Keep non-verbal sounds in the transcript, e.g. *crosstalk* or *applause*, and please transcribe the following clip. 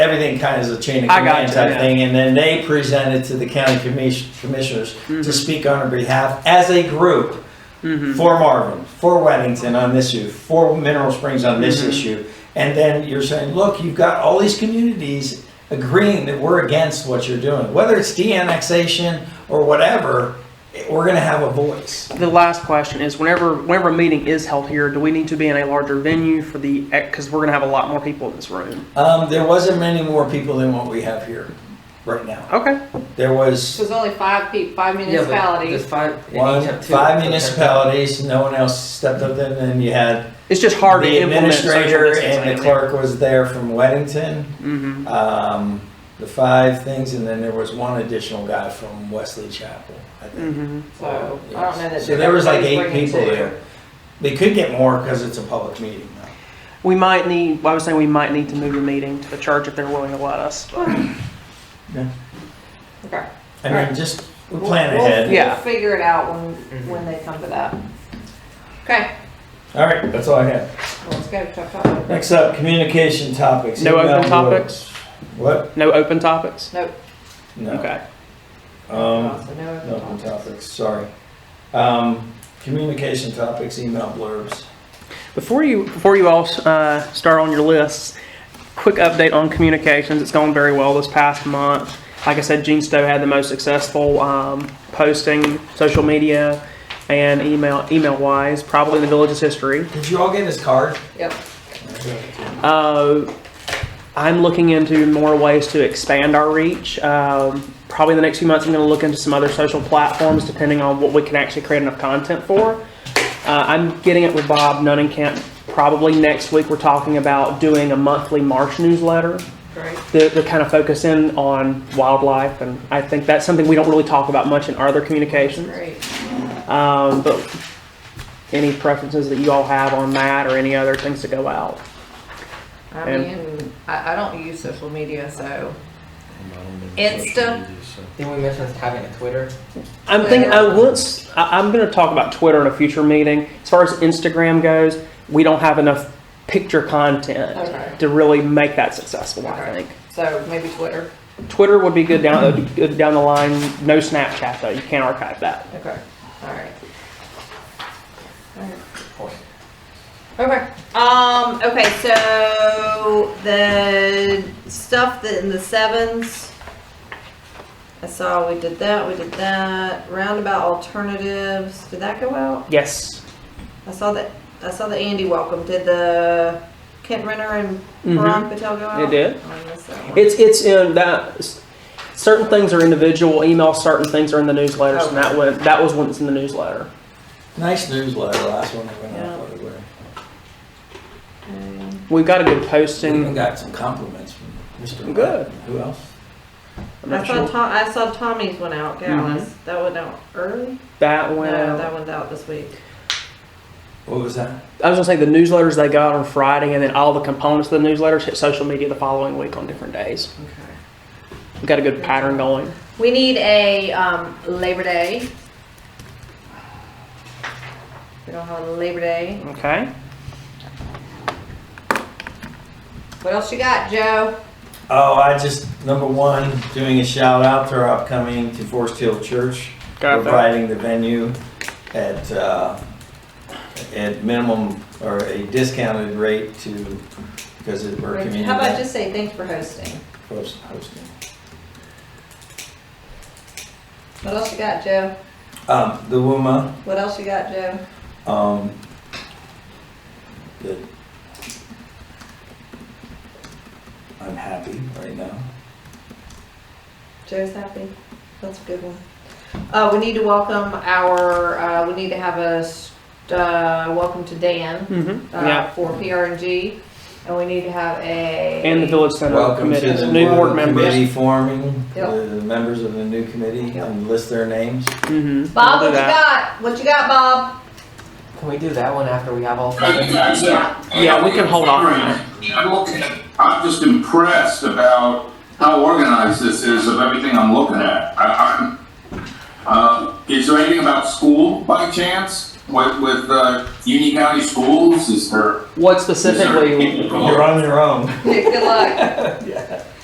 everything kind of is a chain of I got command you, type yeah. thing, and then they present it to the county commis- commissioners to Mhm. speak on their behalf as a group Mhm. for Marvin, for Weddington on this issue, for Mineral Springs on this Mhm. issue. And then you're saying, look, you've got all these communities agreeing that we're against what you're doing, whether it's de-annexation or whatever, it- we're gonna have a voice. The last question is, whenever, whenever a meeting is held here, do we need to be in a larger venue for the, because we're gonna have a lot more people in this room? Um, there wasn't many more people than what we have here right now. Okay, There was There's only five people, five Yeah, but municipalities. There's five. and one, each have two. five municipalities, no one else stepped up, and then you had it's just hard to the implement. social administrator distancing. and the clerk was there from Weddington. Mhm. um, the five things, and then there was one additional guy from Wesley Chapel. I think. Mhm. So, I don't know that. So there was like eight everybody's people bringing two. there. Mm. They could get more because it's a public meeting. though. We might need, well, I was saying we might need to move the meeting to the church if they're willing to let us. Okay. I mean, Right. just we We'll- plan we'll- ahead. Yeah. We'll figure it out when, Mhm. when they come to that. Okay, All right, that's all I have. well, let's go, chop, chop. Next up, communication topics. No open Email topics? boards. What? No open topics? Nope. No. Okay. Um, So no no open open topics. topics. Sorry. Um, communication topics. Email blurbs. Before you, before you all uh, start on your lists, quick update on communications. It's gone very well this past month. Like I said, Gene Stowe had the most successful um, posting, social media, and email email wise, probably in the village's history. Did you all get his card? Yep. Uh, I'm looking into more ways to expand our reach. Um, probably in the next few months, I'm going to look into some other social platforms, depending on what we can actually create enough content for. Uh, I'm getting it with Bob Nunnenkamp. Probably next week, we're talking about doing a monthly March newsletter Great. that, that kind of focus in on wildlife, and I think that's something we don't really talk about much in our other communications. Great. Um, but any preferences that you all have on that, or any other things to go out? I And- mean, I, I don't use social media, so Insta. Didn't we mention us having a Twitter? I'm thinking, I once, I, I'm gonna talk about Twitter in a future meeting. As far as Instagram goes, we don't have enough picture content Okay. to really make that successful, I Okay. think. So maybe Twitter. Twitter would be good down, uh, good down the line. No Snapchat though, you can't archive that. Okay, all right. Okay, um, okay, so the stuff that in the sevens, I saw we did that, we did that, roundabout alternatives, did that go out? Yes. I saw that, I saw the Andy welcome, did the Kent Renner and Mhm. Ron Patel go out? It did. I missed that one. It's, it's in that, certain things are individual email, certain things are in the newsletters, and that went, that was when it's in the newsletter. Nice newsletter. Last one that went out. by the way. Um, We've got a good We even posting. got some compliments from Mr. Good. Martin. Who else? I'm I not saw sure. Mm-hmm. Tom, I saw Tommy's went out, Gallus, that went out early? That went No, out. that one's out this week. What was that? I was gonna say the newsletters they got on Friday, and then all the components of the newsletters hit social media the following week on different days. Okay. We got a good pattern going. We need a um, Labor Day. We don't have a Labor Day. Okay. What else you got, Joe? Oh, I just, number one, doing a shout out to our upcoming to Forest Hill Church. Got that. Providing the venue at, uh, at minimum, or a discounted rate to, because it- we're a community. How about just say thanks for hosting? host- hosting. What else you got, Joe? Um, the WUMA, What else you got, Joe? um, the, I'm happy right now. Joe's happy. That's a good one. Uh, we need to welcome our. Uh, we need to have a s- uh, welcome to Dan uh, Mm-hmm. yeah. for PRNG, and we need to have a And the village center Welcome to committee, the new board new members. committee forming, Yep. the members of the new committee, Yep. and list their names. Mm-hmm. Bob. What you got? What you got, Bob? *laughs* Can we do that one after we *clears throat* have all seven? Yeah, we can hold off on that. I'm looking- I'm just impressed about how organized this is of everything I'm looking at. I, I'm, uh, is there anything about school by chance? with, with, uh, Union County Schools, is there? What is there specifically? people- You're on your own. Good luck.